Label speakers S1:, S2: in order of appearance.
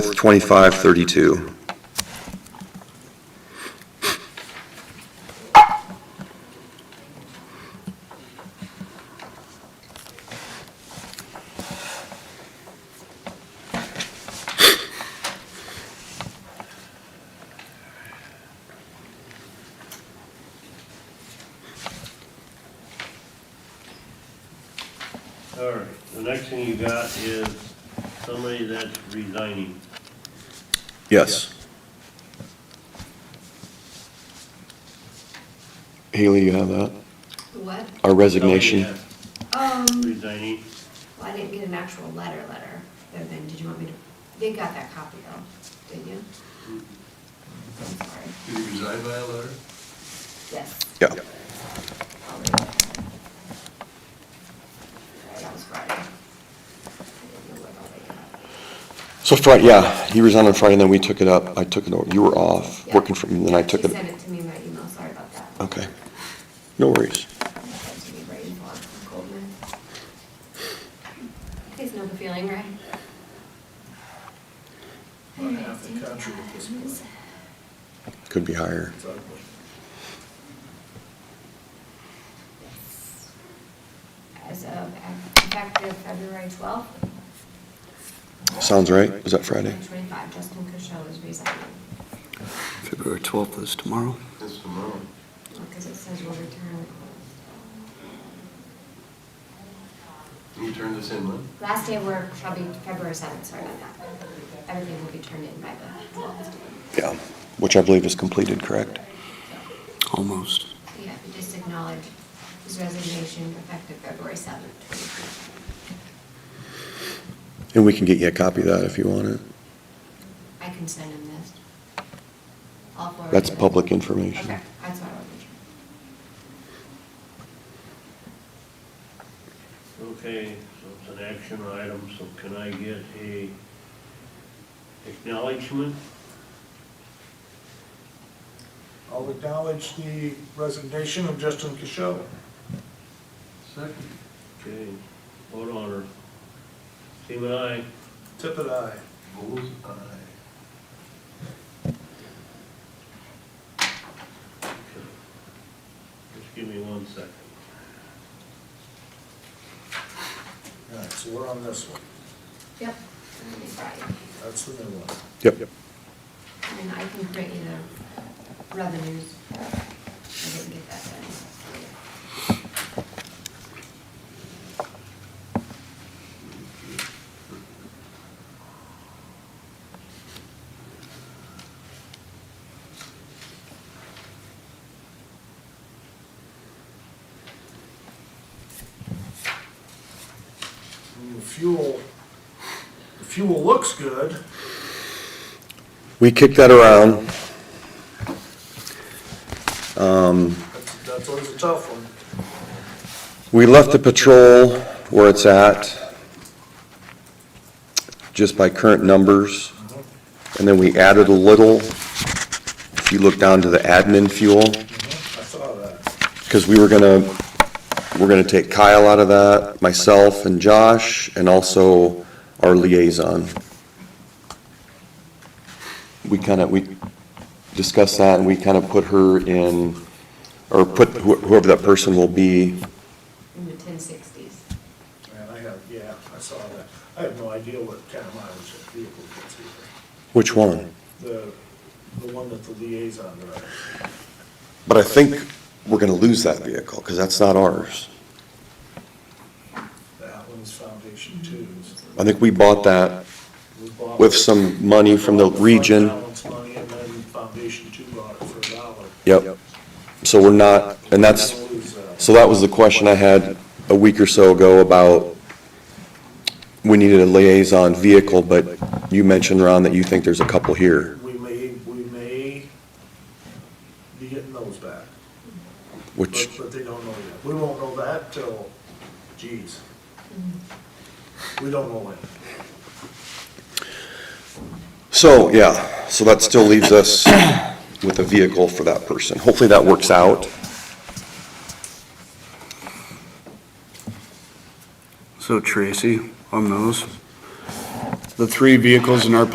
S1: 2532.
S2: All right, the next thing you got is somebody that's resigning.
S3: Yes.
S4: Haley, you have that?
S5: What?
S4: Our
S2: Somebody
S4: resignation?
S2: that's
S5: Um,
S2: Resigning,
S5: well, I didn't get an actual letter, letter, other than, did you want me to, they got that copy though, didn't you? I'm sorry,
S6: Did he resign by a letter?
S5: yes.
S4: Yeah.
S5: I'll read it. Sorry, That was Friday. I didn't know what all they got.
S4: So Friday, yeah, he resigned on Friday, and then we took it up. I took it over. You were off,
S5: Yeah.
S4: working from, and then I
S5: Yeah,
S4: took
S5: she
S4: it.
S5: sent it to me in my email, sorry about that.
S4: Okay. No worries.
S5: She sent it to me by email from Goldman. You guys know the feeling, right?
S6: About half the country at this point.
S4: Could be higher.
S6: It's ugly.
S5: As of, effective February twelfth,
S4: Sounds right? Is that Friday?
S5: 25, Justin Cushel is resigning,
S3: February 12th is tomorrow.
S6: It's tomorrow.
S5: because it says will return.
S6: Can you turn this in, Lynn?
S5: Last day of work shall be February 7th, sorry about that. Everything will be turned in by the 12th.
S4: Yeah, which I believe is completed, correct?
S3: Almost.
S5: Yeah, we just acknowledge his resignation effective February 7th. 2023.
S4: And we can get you a copy of that if you want it.
S5: I can send him this. I'll forward
S4: That's
S5: it.
S4: public information.
S5: Okay, that's what I was sure.
S2: okay, so it's an action item, so can I get a acknowledgement?
S7: I'll acknowledge the resignation of Justin Kishel.
S6: Second.
S2: Okay, vote on her. Seaman, aye.
S7: Tippit, aye.
S6: Bull's eye.
S2: Okay. Just give me one second.
S7: All right, so we're on this one.
S5: Yep. that'll be Friday.
S7: That's the new one.
S4: Yep.
S5: And then I can create you the revenues. I didn't get that done.
S7: And The fuel, the fuel looks good.
S4: We kicked that around. Um,
S7: That's, that's always a tough one.
S4: We left the patrol where it's at, just by current numbers,
S7: Uh-huh,
S4: and then we added a little, if you look down to the admin fuel,
S7: uh-huh. I saw that.
S4: because we were gonna, we're gonna take Kyle out of that, myself and Josh, and also our liaison. We kind of, we discussed that, and we kind of put her in, or put who- whoever that person will be
S5: in the ten sixties.
S7: Man, I have, yeah, I saw that. I have no idea what kind of mileage that vehicle gets either.
S4: Which one?
S7: The, the one that the liaison drives.
S4: But I think we're gonna lose that vehicle, because that's not ours.
S7: That one's Foundation Twos.
S4: I think we bought that
S7: We bought
S4: with
S7: it-
S4: some money from the
S7: bought fund
S4: region.
S7: balance money and then Foundation Two bought it for a dollar.
S4: Yep. So we're not, and that's,
S7: We'll lose that. uh,
S4: so that was the question I had a week or so ago about, we needed a liaison vehicle, but you mentioned, Ron, that you think there's a couple here.
S7: We may, we may be getting those back, but,
S4: Which,
S7: but they don't know yet. We won't know that till, geez. We don't know when.
S4: so, yeah, so that still leaves us with a vehicle for that person. Hopefully that works out.
S3: So Tracy, on those, the three vehicles in our